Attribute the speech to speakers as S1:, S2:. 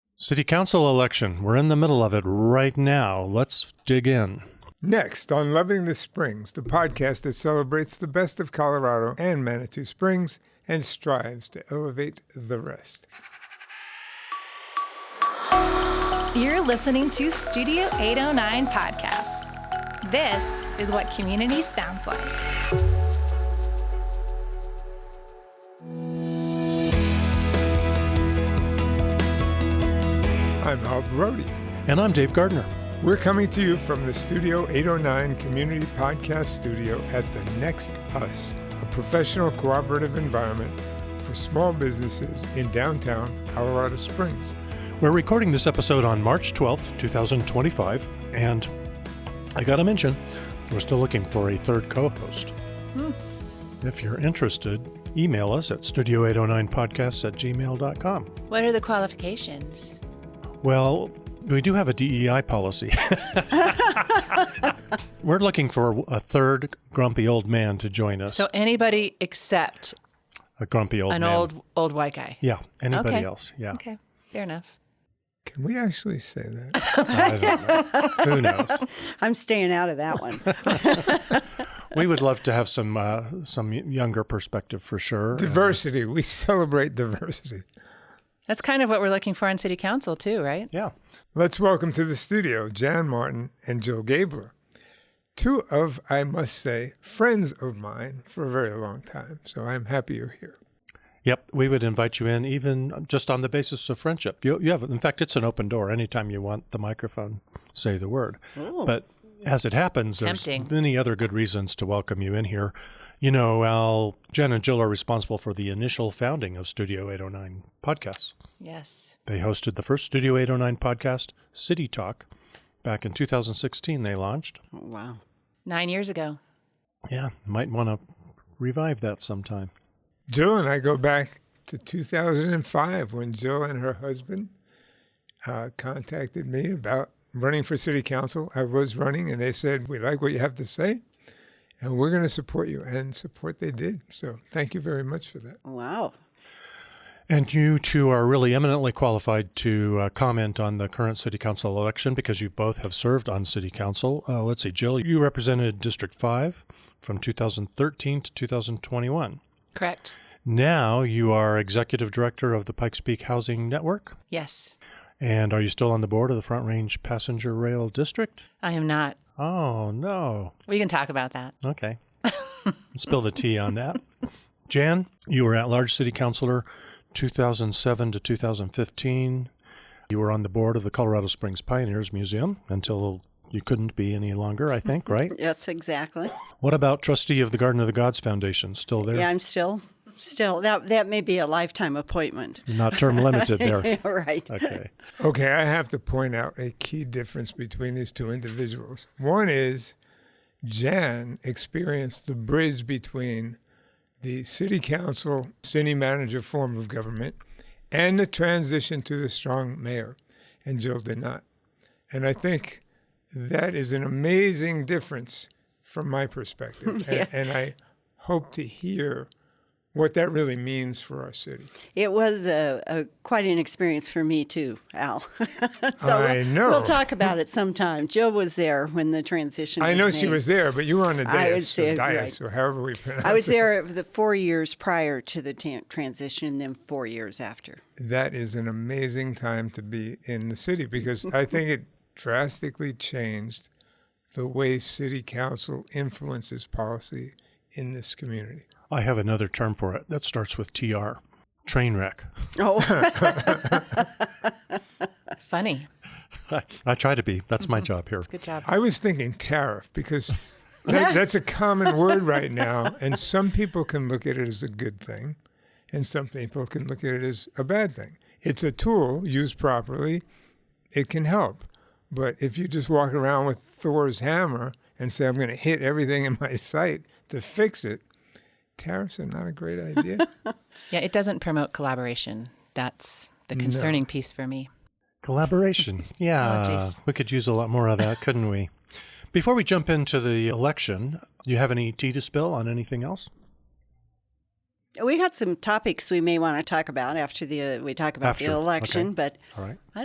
S1: City Council election. We're in the middle of it right now. Let's dig in.
S2: Next, on Loving the Springs, the podcast that celebrates the best of Colorado and Manitou Springs and strives to elevate the rest.
S3: You're listening to Studio 809 Podcasts. This is what community sounds like.
S2: I'm Hal Brody.
S1: And I'm Dave Gardner.
S2: We're coming to you from the Studio 809 Community Podcast Studio at The Next Us, a professional cooperative environment for small businesses in downtown Colorado Springs.
S1: We're recording this episode on March 12th, 2025, and I gotta mention, we're still looking for a third co host.
S4: Hmm.
S1: If you're interested, email us at studio809podcasts at gmail.com.
S4: What are the qualifications?
S1: Well, we do have a DEI policy. we're looking for a third grumpy old man to join us.
S4: So anybody except
S1: a grumpy old
S4: an
S1: man.
S4: old old white guy.
S1: Yeah, anybody
S4: Okay.
S1: else. Yeah.
S4: Okay, fair enough.
S2: Can we actually say that?
S1: I don't know. Who knows?
S5: I'm staying out of that one.
S1: We would love to have some uh, some younger perspective for sure.
S2: diversity. We celebrate diversity.
S4: That's kind of what we're looking for on city council too, right?
S1: Yeah.
S2: Let's welcome to the studio Jan Martin and Jill Gabler, two of, I must say, friends of mine for a very long time. So I'm happy you're here.
S1: Yep. We would invite you in, even just on the basis of friendship. You, you have, in fact, it's an open door. Anytime you want the microphone, say the word. But as it happens, there's
S4: Tempting.
S1: many other good reasons to welcome you in here. You know, Al, Jen and Jill are responsible for the initial founding of Studio 809 podcasts.
S4: Yes.
S1: They hosted the first Studio 809 podcast, City Talk. Back in 2016, they launched.
S5: wow.
S4: Nine years ago.
S1: Yeah, might want to revive that sometime.
S2: Jill and I go back to 2005 when Jill and her husband uh, contacted me about running for city council. I was running, and they said, We like what you have to say, and we're going to support you. And support they did. So thank you very much for that.
S5: Wow.
S1: And you two are really eminently qualified to uh, comment on the current city council election because you both have served on city council. Uh, let's see, Jill, you represented District 5 from 2013 to 2021.
S4: Correct.
S1: Now you are executive director of the Pikes Peak Housing Network.
S4: Yes.
S1: And are you still on the board of the Front Range Passenger Rail District?
S4: I am not.
S1: Oh, no.
S4: We can talk about that.
S1: Okay. Spill the tea on that. Jan, you were at large city councilor 2007 to 2015. You were on the board of the Colorado Springs Pioneers Museum until you couldn't be any longer, I think, right?
S5: Yes, exactly.
S1: what about trustee of the Garden of the Gods Foundation? Still there?
S5: Yeah, I'm still, still. That that may be a lifetime appointment.
S1: Not term limited there.
S5: All right.
S1: Okay.
S2: Okay, I have to point out a key difference between these two individuals. One is Jan experienced the bridge between the city council, city manager form of government, and the transition to the strong mayor, and Jill did not. And I think that is an amazing difference from my perspective. and, and I hope to hear what that really means for our city.
S5: It was a, a quite an experience for me too, Al. so
S2: I
S5: we'll-
S2: know.
S5: We'll talk about it sometime. Jill was there when the transition.
S2: I know she
S5: made.
S2: was there, but you were on the dais,
S5: I was
S2: or
S5: there,
S2: dais, or however we pronounce
S5: I was
S2: it.
S5: there the four years prior to the tan transition, and then four years after.
S2: That is an amazing time to be in the city because I think it drastically changed the way city council influences policy in this community.
S1: I have another term for it that starts with TR train wreck.
S5: Oh,
S4: Funny.
S1: I try to be. That's my job here.
S4: Good job.
S2: I was thinking tariff because that, that's a common word right now, and some people can look at it as a good thing, and some people can look at it as a bad thing. It's a tool used properly, it can help. But if you just walk around with Thor's hammer and say, I'm going to hit everything in my sight to fix it, tariffs are not a great idea.
S4: Yeah, it doesn't promote collaboration. That's the concerning piece for me.
S1: Collaboration. Yeah.
S4: jeez.
S1: we could use a lot more of that, couldn't we? Before we jump into the election, do you have any tea to spill on anything else?
S5: we had some topics we may want to talk about after the we talk about
S1: After,
S5: the election,
S1: okay.
S5: but
S1: All right.
S5: I